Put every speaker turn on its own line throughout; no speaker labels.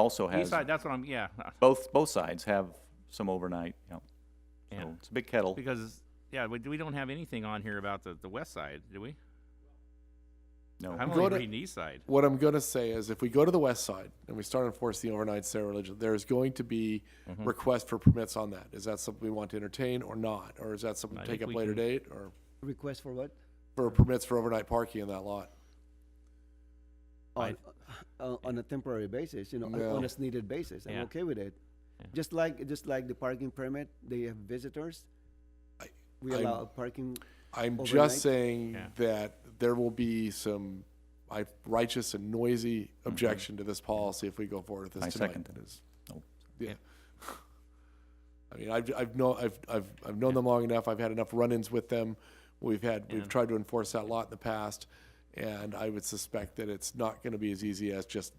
also
East
has,
side, that's what I'm, yeah,
both, both sides have some overnight, you know.
Yeah.
So it's a big kettle.
because, yeah, we, we don't have anything on here about the, the west side, do we?
No.
I'm
Go
only
to-
reading east side.
What I'm going to say is if we go to the west side and we start enforcing the overnight sale religion, there's going to be
Mm-hmm.
requests for permits on that. Is that something we want to entertain or not? Or is that something
I
to take
think
up
we
later
can-
date or
Request for what?
for permits for overnight parking in that lot?
On,
Right.
uh, on a temporary basis, you know, on-
Yeah.
on a needed basis. I'm
Yeah.
okay with it.
Yeah.
Just like, just like the parking permit, they have visitors.
I-
We
I'm-
allow parking,
I'm
Overnight?
just saying
Yeah.
that there will be some I- righteous and noisy
Mm-hmm.
objection to this policy if we go forward with this
I
tonight.
second
It is-
Nope.
Yeah. I mean, I've, I've known, I've, I've, I've known them long enough. I've had enough run-ins with them. We've had, we've tried to enforce that lot in the past. And I would suspect that it's not going to be as easy as just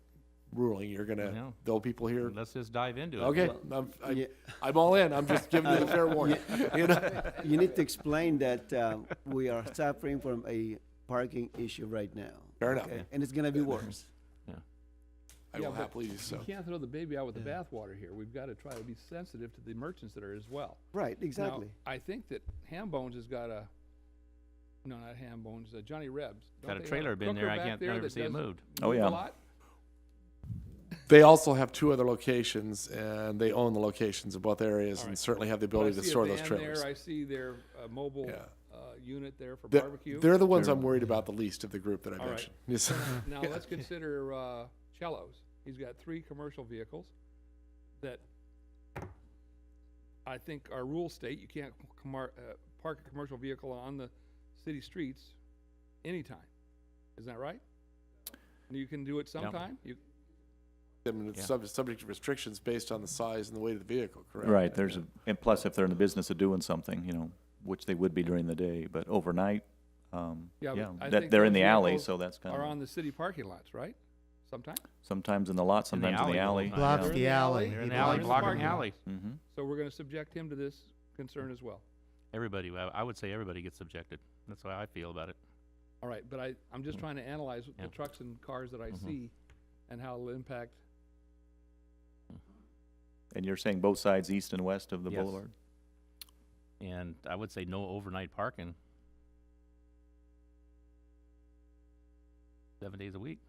ruling. You're going to,
No.
though people here,
Let's just dive into it.
okay, I'm, I'm,
yeah.
I'm all in. I'm just giving you the fair warning. You know?
you need to explain that um, we are suffering from a parking issue right now.
Fair enough.
okay? And it's gonna be worse.
I
Yeah,
will
but
happily do so.
You can't throw the baby out with the bathwater here. We've got to try to be sensitive to the merchants that are as well.
Right,
Now,
exactly.
I think that Ham Bones has got a, no, not Ham Bones, uh, Johnny Rebs. Don't
Got a
they have
trailer been there.
cooker
I
back
can't
there
never
that
see it
does
moved.
Oh,
move a
yeah.
lot?
They also have two other locations, and they own the locations of both areas, and
Alright.
certainly have the
But I
ability to
see a
store those
van
trailers.
There, I see their uh, mobile
Yeah.
uh, unit there for
They're,
barbecue.
they're the ones I'm worried about the least of the group that I
Alright.
mentioned. Yes.
Now let's consider uh, Cello's. He's got three commercial vehicles that I think our rule state you can't com- uh, park a commercial vehicle on the city streets anytime. Isn't that right? And You can do it sometime. You,
I mean, it's
Yeah.
sub- subject to restrictions based on the size and the weight of the vehicle, correct?
Right, there's a, and plus if they're in the business of doing something, you know, which they would be during the day, but overnight, um,
Yeah, but
yeah,
I
that,
think
they're in
those
the alley,
vehicles
so that's kind
are on
of,
the city parking lots, right? Sometime.
sometimes in the lot,
In the
sometimes in the
alley
alley.
the whole time.
Blocks
They're in
the alley.
They're
He
in the
Well,
alley,
there's a
blocking
parking
the
lot.
alley.
Mm-hmm.
So we're going to subject him to this concern as well.
Everybody, I I would say everybody gets subjected. That's how I feel about it.
All right, but I, I'm just trying to analyze
Mm. Yeah. Mm-hmm.
the trucks and cars that I see and how it'll impact
And you're saying both sides, east and west of the
Yes.
boulevard?
And I would say no overnight parking. Seven days a week.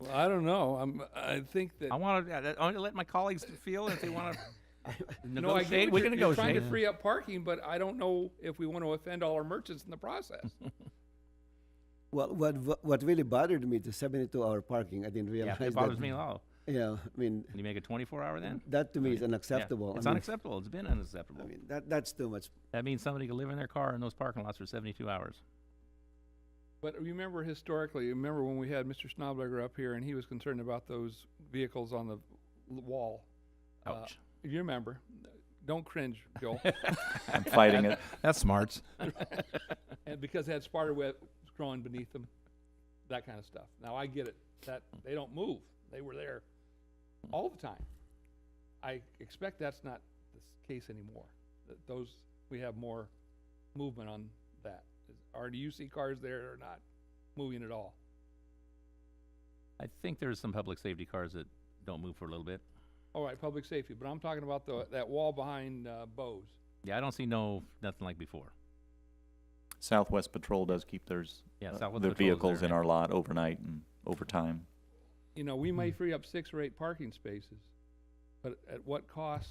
Well, I don't know. I'm, I think that.
I want to, I want to let my colleagues feel if they want to
no, I get
negotiate,
what
we
you're-
can
you're Trying
negotiate.
to free up parking, but I don't know if we want to offend all our merchants in the process.
Well, what, what- what really bothered me, the seventy-two hour parking, I didn't
Yeah,
realize that.
it bothers me a lot.
Yeah, I mean,
Can you make a twenty-four hour then?
that to me is
Yeah.
unacceptable. I
It's
mean-
unacceptable. It's been
I
unacceptable.
mean, that, that's too much.
That means somebody could live in their car in those parking lots for seventy-two hours.
But remember historically, remember when we had Mr. Schnabberger up here and he was concerned about those vehicles on the l- wall. Uh,
Ouch.
You remember. Don't cringe, Joel.
oh. I'm fighting it.
That's smarts.
and because they had spider web growing beneath them, that kind of stuff. Now I get it. That they don't move. They were there all the time. I expect that's not the s- case anymore. That those we have more movement on that. Are do you see cars there or not moving at all?
I think there's some public safety cars that don't move for a little bit.
All right, public safety. But I'm talking about the that wall behind uh, Bose.
Yeah, I don't see no, nothing like before.
Southwest Patrol does keep theirs,
Yeah,
uh,
Southwest
their
Patrol is
vehicles
there,
in
yeah.
our lot overnight and overtime.
You know, we may free up six or eight parking spaces, but at what cost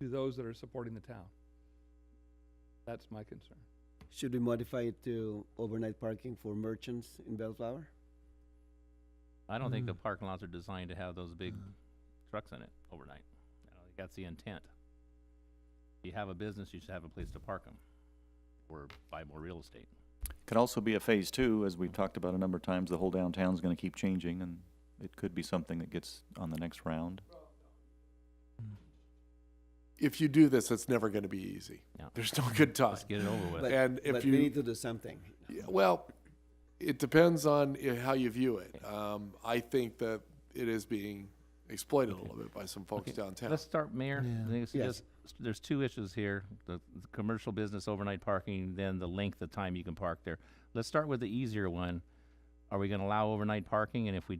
to those that are supporting the town? That's my concern.
Should we modify it to overnight parking for merchants in Bellflower?
I don't think the
Mm.
parking lots are designed to have those big trucks in it overnight. I don't think that's the intent. If you have a business, you should have a place to park them or buy more real estate.
Could also be a phase two, as we've talked about a number of times, the whole downtown's gonna keep changing and it could be something that gets on the next round.
If you do this, it's never going to be easy.
Yeah.
There's no good time.
Let's get it over with.
But-
And if
but
you-
we need to do something.
Yeah, Well, it depends on i- how you view it. Um, I think that it is being exploited a little bit by some folks downtown.
Let's start, Mayor.
Yeah.
I think it's
Yes.
just- There's two issues here, the, the commercial business overnight parking, then the length of time you can park there. Let's start with the easier one. Are we gonna allow overnight parking? And if we